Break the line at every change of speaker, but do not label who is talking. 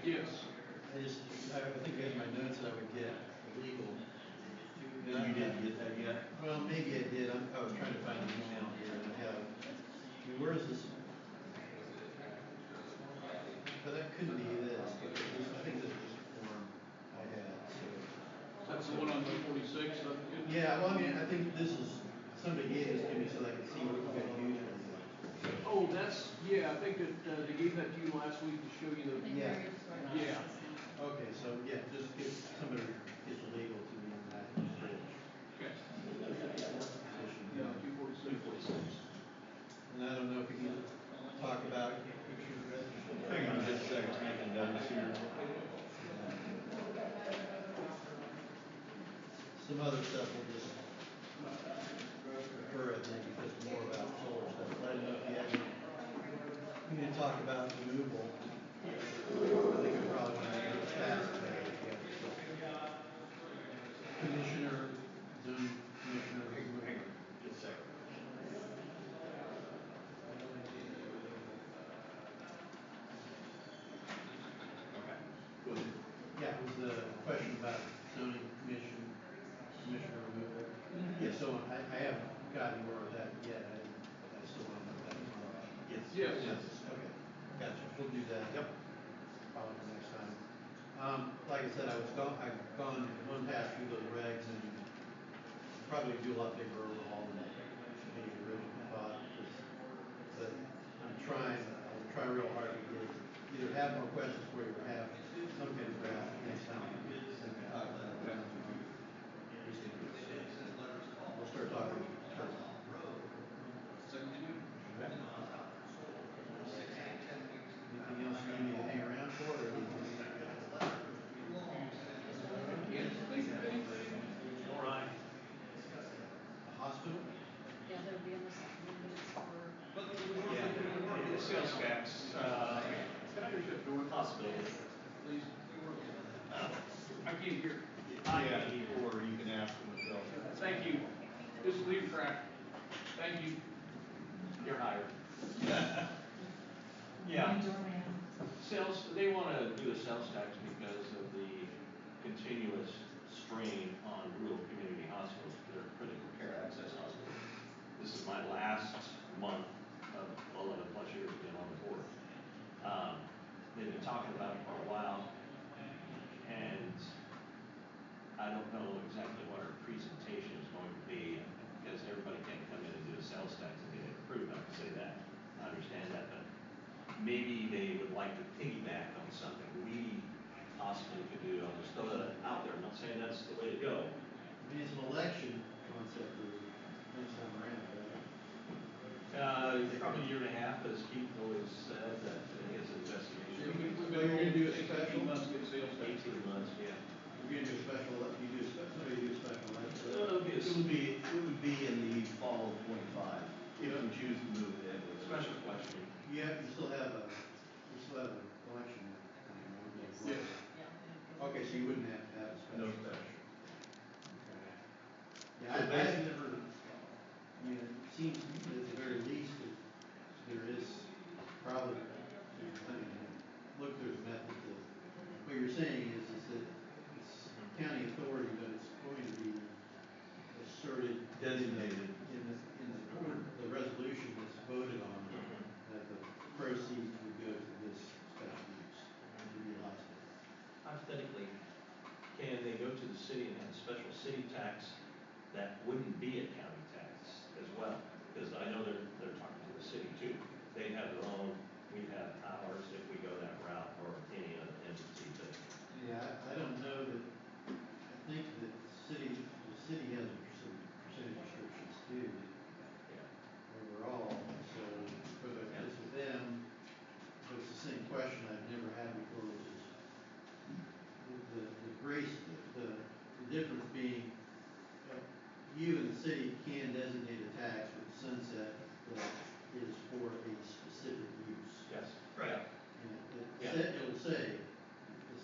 I just, I think I had my notes that I would get legal. And
You
I-
didn't get that yet?
Well, maybe I did, I'm- I was trying to find an email here and I have, I mean, where is this? But that couldn't be this, but this, I think this was the form I had, so.
That's the one on the forty-six, that's good.
Yeah, well, I mean, I think this is, somebody gave this to me so I could see what we got used
Oh, that's, yeah, I think that, uh, they gave that to you last week to show you the,
Yeah.
yeah.
Okay, so, yeah, just get, somebody get the legal to me on that.
Okay.
position.
Yeah, two forty-six.
And I don't know if we can talk about.
Hang on just a second, making notes here.
Some other stuff we'll just refer, I think, because more about solar stuff, but I don't know if you have, any- we need to talk about removal. I think we probably want to do it fast. Commissioner, zoom, commissioner.
Hang on just a second. Okay. Go ahead.
Yeah, it was the question about zoning commission, commissioner removal. Yeah, so I, I haven't gotten word of that yet, I, I still don't know that.
Yes.
Yes.
Okay, gotcha, we'll do that.
Yep.
Probably the next time. Um, like I said, I was gone, I've gone one pass through those regs and probably do a lot bigger overhaul than maybe originally thought. 'cause- But I'm trying, I'll try real hard to get, either have more questions for you or have some kind of draft next time. we talk about it. We'll start talking. Okay. Anything else you need me to hang around for or?
Yes, thank you. All right.
A Hospital?
Yeah, there'll be almost minutes for.
Yeah, sales tax, uh, can I just shut the door?
Possibility.
Please. I can't hear.
Yeah, or you can ask them as well.
Thank you. Just leave track. Thank you.
You're hired. Yeah, sales, they wanna do a sales tax because of the continuous strain on rural community hospitals, their critical care access hospitals. This is my last month of eleven plus years being on the board. Um, they've been talking about it for a while, and I don't know exactly what our presentation is going to be, because everybody can't come in and do a sales tax and get it approved, I can say that, I understand that, but maybe they would like to piggyback on something we possibly could do, I'll just throw that out there, I'm not saying that's the way to go.
I mean, it's an election concept for next time around, right?
Uh, probably a year and a half, as Keith always said, that in his investigation,
We're gonna do a special,
Eighteen months good sales tax.
eighteen months, yeah.
we're gonna do a special, you do a special, somebody do a special election.
So it'll be a
It would be, it would be in the fall of twenty-five, if you choose to move it.
special question.
You have, you still have a, you still have an election. coming, right?
Yes.
Okay, so you wouldn't have to have a
No special.
special. Okay.
So
Yeah, I, I have
basi-
never, I mean, it seems to me that at the very least, that there is probably, I mean, look, there's a method to, what you're saying is, is that it's county authority, but it's going to be asserted. in the-
Designated.
In the, in the, the resolution that's voted on,
Mm-hmm.
that the proceeds would go to this special use, to be hospital.
Hypothetically, can they go to the city and have a special city tax that wouldn't be a county tax as well? Because I know they're, they're talking to the city too. They have their own, we have ours if we go that route or any other entity, but
Yeah, I, I don't know that, I think that city, the city has some percentage restrictions too
yeah.
overall, so, but if it's with them, but it's the same question I've never had before, which is the, the grace, the, the difference being, uh, you and the city can designate a tax with sunset that is for a specific